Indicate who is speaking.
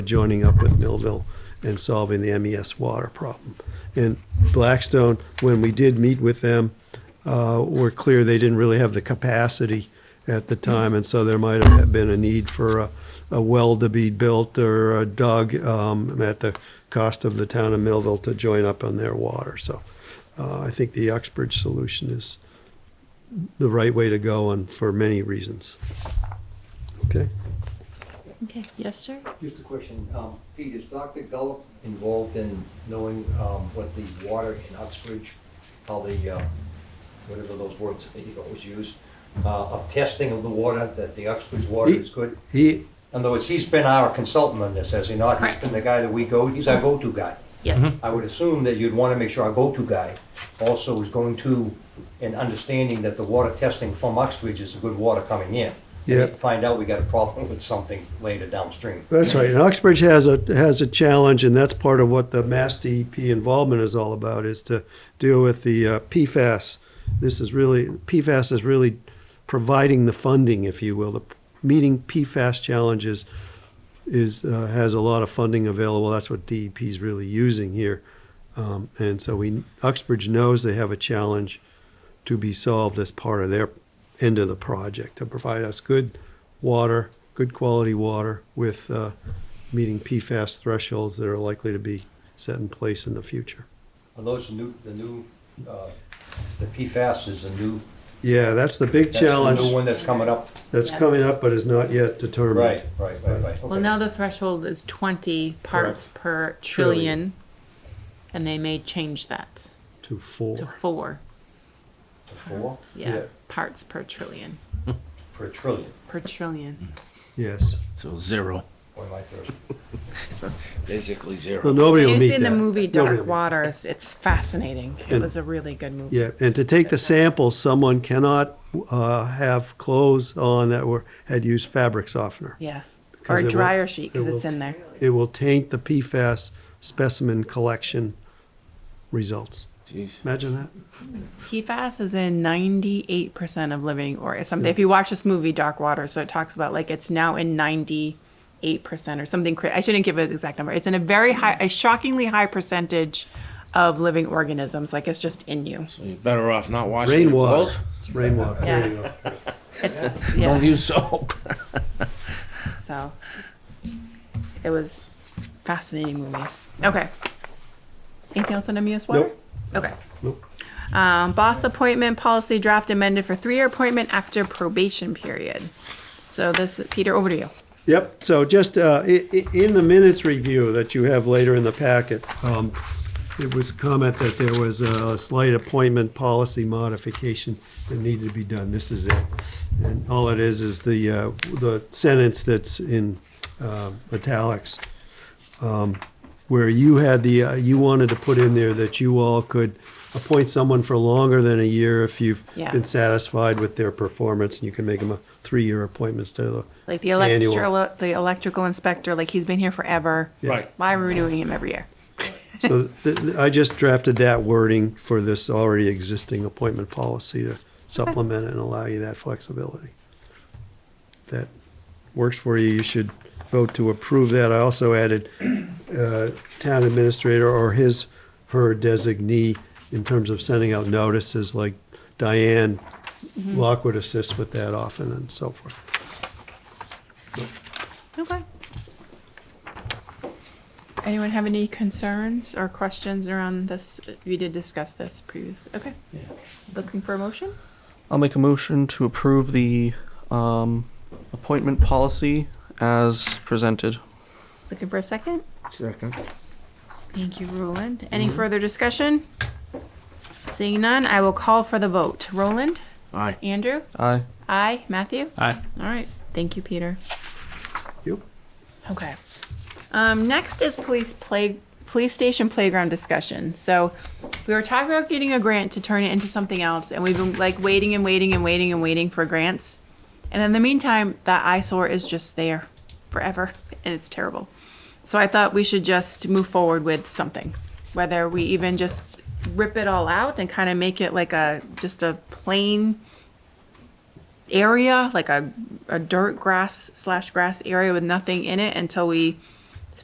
Speaker 1: joining up with Millville and solving the MES water problem. And Blackstone, when we did meet with them, uh, were clear they didn't really have the capacity at the time, and so there might have been a need for a, a well to be built or a dug um, at the cost of the town of Millville to join up on their water. So uh, I think the Uxbridge solution is the right way to go and for many reasons. Okay?
Speaker 2: Okay, yes, sir?
Speaker 3: Just a question, um, Pete, is Dr. Gullop involved in knowing, um, what the water in Uxbridge, how the, um, whatever those words that you always use, uh, of testing of the water, that the Uxbridge water
Speaker 1: He-
Speaker 3: is good?
Speaker 1: He,
Speaker 3: In other words, he's been our consultant on this, has he not? He's been the
Speaker 2: Correct.
Speaker 3: guy that we go, he's our go-to guy.
Speaker 2: Yes.
Speaker 1: Mm-hmm.
Speaker 3: I would assume that you'd wanna make sure our go-to guy also is going to, and understanding that the water testing from Uxbridge is good water coming in.
Speaker 1: Yeah.
Speaker 3: Find out we got a problem with something later downstream.
Speaker 1: That's right. And Uxbridge has a, has a challenge, and that's part of what the Mass DEP involvement is all about, is to deal with the uh, PFAS. This is really, PFAS is really providing the funding, if you will. The Meeting PFAS challenges is, uh, has a lot of funding available. That's what DEP is really using here. Um, And so we, Uxbridge knows they have a challenge to be solved as part of their end of the project, to provide us good water, good quality water with uh, meeting PFAS thresholds that are likely to be set in place in the future.
Speaker 3: Are those the new, the new, uh, the PFAS is the new?
Speaker 1: Yeah, that's the big
Speaker 3: that's the New
Speaker 1: challenge
Speaker 3: one that's coming up?
Speaker 1: that's coming up, but is not yet determined.
Speaker 3: Right, right, right, right.
Speaker 2: Well, now the threshold is twenty parts per
Speaker 1: Trillion.
Speaker 2: trillion, and they may change that to
Speaker 1: To four.
Speaker 2: four,
Speaker 3: Okay. Four
Speaker 1: Yeah.
Speaker 2: yeah, parts per trillion,
Speaker 3: per trillion,
Speaker 2: per trillion.
Speaker 1: Yes.
Speaker 4: So zero,
Speaker 3: boy, am I thirsty.
Speaker 4: basically
Speaker 1: Well,
Speaker 4: zero.
Speaker 1: nobody will
Speaker 5: You've
Speaker 1: meet
Speaker 5: seen the
Speaker 1: that.
Speaker 5: movie
Speaker 1: Nobody will
Speaker 5: Dark
Speaker 1: meet
Speaker 5: Waters. It's fascinating. It
Speaker 1: And-
Speaker 5: was a really good movie.
Speaker 1: Yeah, and to take the samples, someone cannot uh, have clothes on that were, had used fabric softener.
Speaker 5: Yeah.
Speaker 1: Because
Speaker 5: Or
Speaker 1: it
Speaker 5: a
Speaker 1: will-
Speaker 5: dryer sheet because
Speaker 1: it will
Speaker 5: it's in there.
Speaker 1: It will taint the PFAS specimen collection results.
Speaker 4: Jeez.
Speaker 1: Imagine that.
Speaker 5: PFAS is in 98% of living or something. If you watch this movie Dark Waters, so it talks about like it's now in 98% or something. cra- I shouldn't give an exact number. It's in a very high, a shockingly high percentage of living organisms. Like it's just in you.
Speaker 4: So you're better off not washing your
Speaker 1: Rainwater.
Speaker 4: clothes.
Speaker 1: It's rainwater.
Speaker 5: Yeah.
Speaker 1: There you go.
Speaker 5: It's yeah.
Speaker 4: Don't use soap.
Speaker 5: So it was fascinating movie. Okay. Anything else on MES water?
Speaker 1: Nope.
Speaker 5: Okay.
Speaker 1: Nope.
Speaker 5: Um, boss appointment policy draft amended for three-year appointment after probation period. So this, Peter, over to you.
Speaker 1: Yep, so just uh, i- i- in the minutes review that you have later in the packet, um, it was comment that there was a slight appointment policy modification that needed to be done. This is it. And all it is, is the, uh, the sentence that's in uh, italics, um, where you had the, uh, you wanted to put in there that you all could appoint someone for longer than a year if you've
Speaker 5: Yeah.
Speaker 1: been satisfied with their performance, and you can make them a three-year appointment instead of the
Speaker 5: Like the
Speaker 1: Annual.
Speaker 5: electrical, the electrical inspector, like he's been here forever.
Speaker 1: Yeah.
Speaker 4: Right.
Speaker 5: Why are we renewing him every year?
Speaker 1: So th- th- I just drafted that wording for this already existing appointment policy to supplement and allow you that flexibility. If That works for you, you should vote to approve that. I also added uh, town administrator or his, her designee in terms of sending out notices, like Diane Lockwood assists with that often and so forth.
Speaker 5: Okay. Anyone have any concerns or questions around this? We did discuss this previously. Okay. Looking for a motion?
Speaker 6: I'll make a motion to approve the um, appointment policy as presented.
Speaker 5: Looking for a second?
Speaker 4: Second.
Speaker 5: Thank you, Roland. Any further discussion? Seeing none, I will call for the vote. Roland?
Speaker 4: Aye.
Speaker 5: Andrew?
Speaker 6: Aye.
Speaker 5: Aye. Matthew?
Speaker 4: Aye.
Speaker 5: All right. Thank you, Peter.
Speaker 1: You?
Speaker 5: Okay. Um, next is police play, police station playground discussion. So we were talking about getting a grant to turn it into something else, and we've been like waiting and waiting and waiting and waiting for grants. And in the meantime, that eyesore is just there forever, and it's terrible. So I thought we should just move forward with something, whether we even just rip it all out and kind of make it like a just a plain area, like a, a dirt grass slash grass area with nothing in it until we